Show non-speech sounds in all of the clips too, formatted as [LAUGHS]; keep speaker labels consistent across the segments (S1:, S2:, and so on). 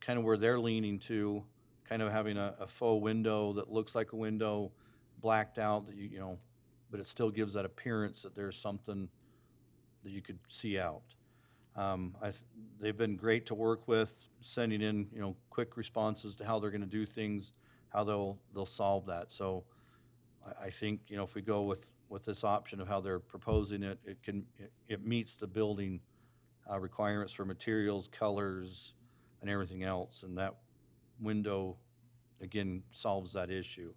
S1: kind of where they're leaning to, kind of having a, a faux window that looks like a window, blacked out, that you, you know, but it still gives that appearance that there's something that you could see out. Um, I, th- they've been great to work with, sending in, you know, quick responses to how they're gonna do things, how they'll, they'll solve that. So I, I think, you know, if we go with, with this option of how they're proposing it, it can, it, it meets the building uh, requirements for materials, colors, and everything else, and that window, again, solves that issue.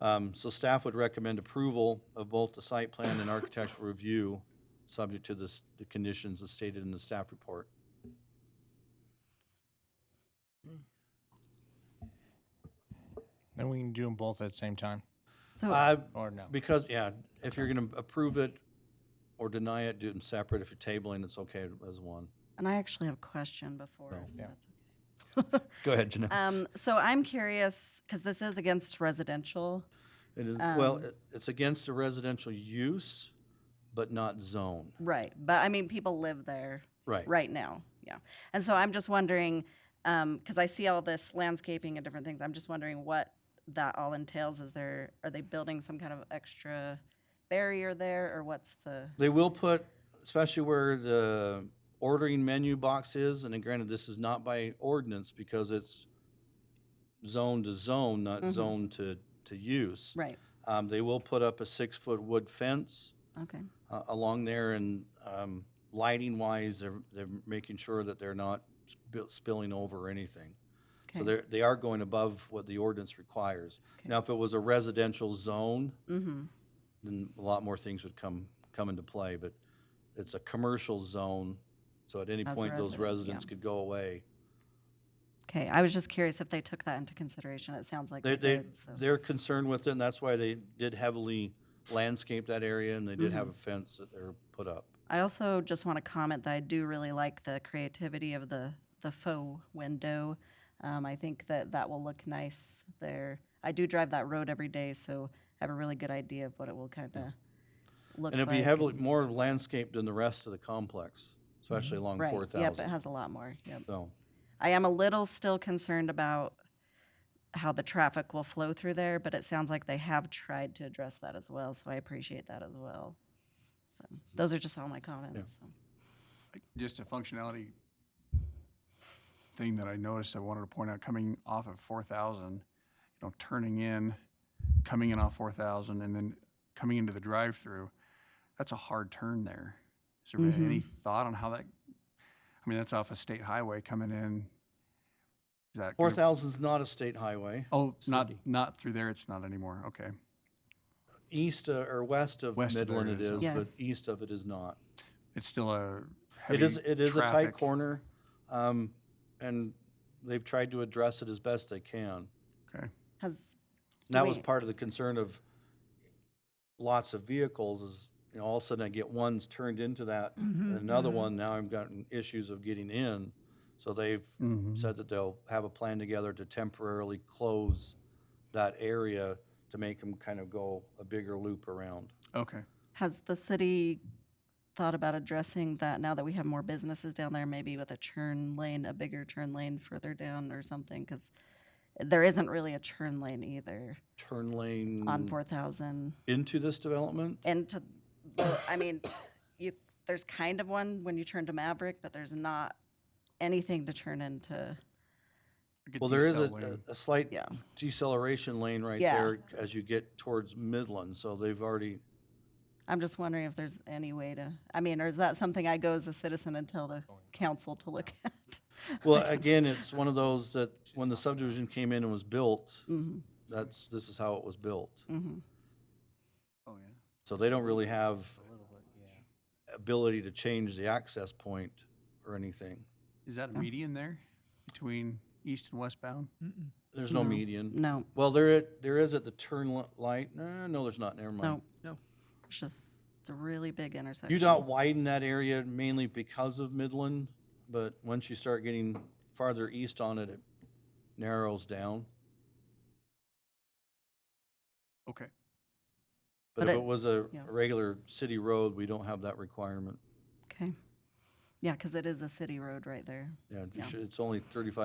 S1: Um, So staff would recommend approval of both the site plan and architectural review, subject to this, the conditions as stated in the staff report.
S2: Then we can do them both at the same time,
S3: So,
S1: Uh,
S2: or no?
S1: Because, yeah, if you're going to approve it or deny it, do them separate. If you're tabling, it's okay as one.
S3: and I actually have a question before. if
S2: Yeah.
S3: that's
S1: Go ahead, Janelle.
S3: okay. Um, so I'm curious, because this is against residential.
S1: It is, well, it- it's against the residential use, but not zone.
S3: Right. But I mean, people live there
S1: Right.
S3: right now. Yeah. And so I'm just wondering, because I see all this landscaping and different things, I'm just wondering what that all entails. Is there, are they building some kind of extra barrier there or what's the,
S1: They will put, especially where the ordering menu box is, and then granted, this is not by ordinance because it's zone to zone, not zone to, to use.
S3: Mm-hmm. right.
S1: Um, they will put up a six-foot wood fence
S3: Okay.
S1: uh, along there and, um, lighting wise, they're, they're making sure that they're not sp- spilling over or anything. So
S3: Okay.
S1: they're, they are going above what the ordinance requires.
S3: Okay.
S1: Now, if it was a residential zone,
S3: Mm-hmm.
S1: then a lot more things would come, come into play, but it's a commercial zone, so at any
S3: As a
S1: point, those
S3: resident,
S1: residents
S3: yeah.
S1: could go away.
S3: Okay. I was just curious if they took that into consideration. It sounds like
S1: They,
S3: they,
S1: they,
S3: did. So.
S1: they're concerned with it, and that's why they did heavily landscape that area, and they did have a
S3: Mm-hmm.
S1: fence that they're put up.
S3: I also just want to comment that I do really like the creativity of the the faux window. Um, I think that that will look nice there. I do drive that road every day, so I have a really good idea of what it will kind of look
S1: And it'd
S3: like.
S1: be heavily, more landscaped than the rest of the complex, especially along
S3: Mm-hmm. right.
S1: four
S3: Yep, it
S1: thousand.
S3: has a lot more. Yep.
S1: So,
S3: I am a little still concerned about how the traffic will flow through there, but it sounds like they have tried to address that as well, so I appreciate that as well. So those are just all my comments. so.
S4: Just a functionality thing that I noticed, I wanted to point out, coming off of four thousand, you know, turning in, coming in off four thousand, and then coming into the drive-through, that's a hard turn there. Is there
S1: Mm-hmm.
S4: been any thought on how that, I mean, that's off a state highway coming in. Is that?
S1: four
S4: gonna-
S1: thousand's not a state highway.
S4: Oh, not,
S1: City.
S4: not through there, it's not anymore, okay.
S1: East uh, or west of
S4: West of there
S1: Midland it
S4: it is,
S1: is,
S3: okay.
S1: but
S3: Yes.
S1: east of it is not.
S4: It's still a
S1: It
S4: heavy
S1: is, it is a tight
S4: traffic.
S1: corner, um, and they've tried to address it as best they can.
S4: Okay,
S3: Has
S1: And that was
S3: Wait.
S1: part of the concern of lots of vehicles is, you know, all of a sudden I get ones turned into that, and another
S3: Mm-hmm.
S1: one, now I've gotten issues of getting in. So they've said that they'll have a plan together to temporarily close that area to make them kind of go a bigger loop around.
S4: okay.
S3: Has the city thought about addressing that now that we have more businesses down there, maybe with a turn lane, a bigger turn lane further down or something? Because there isn't really a turn lane either
S1: Turn lane
S3: on 4,000.
S1: into this development?
S3: And to, the- I mean, t- you, there's kind of one when you turn to Maverick, but there's not anything to turn into.
S4: Get
S1: Well, there is
S4: decel
S1: a-
S4: lane.
S1: a, a slight
S3: Yeah.
S1: deceleration lane right
S3: Yeah.
S1: there as you get towards Midland, so they've
S3: [LAUGHS]
S1: already,
S3: I'm just wondering if there's any way to, I mean, or is that something I go as a citizen and tell the council to look at?
S1: well, again, it's one of those that when the subdivision came in and was built,
S3: Mm-hmm,
S1: that's, this is how it was built.
S4: Oh, yeah.
S1: So they don't really have ability to change the access point or anything.
S4: Is that a median there between east and westbound?
S1: There's no median.
S3: No, Mm.
S1: Well, there, i- there is at the turn li- light, Eh, no, there's not, never mind.
S3: no. No. It's just, it's a really big intersection.
S1: You don't widen that area mainly because of Midland, but once you start getting farther east on it, it narrows down.
S4: Okay.
S1: But
S3: But
S1: if
S3: it-
S1: it was a
S3: yeah.
S1: regular city road, we don't have that requirement.
S3: Okay. Yeah, because it is a city road right there.
S1: Yeah, you
S3: Yeah.
S1: should- it's only thirty-five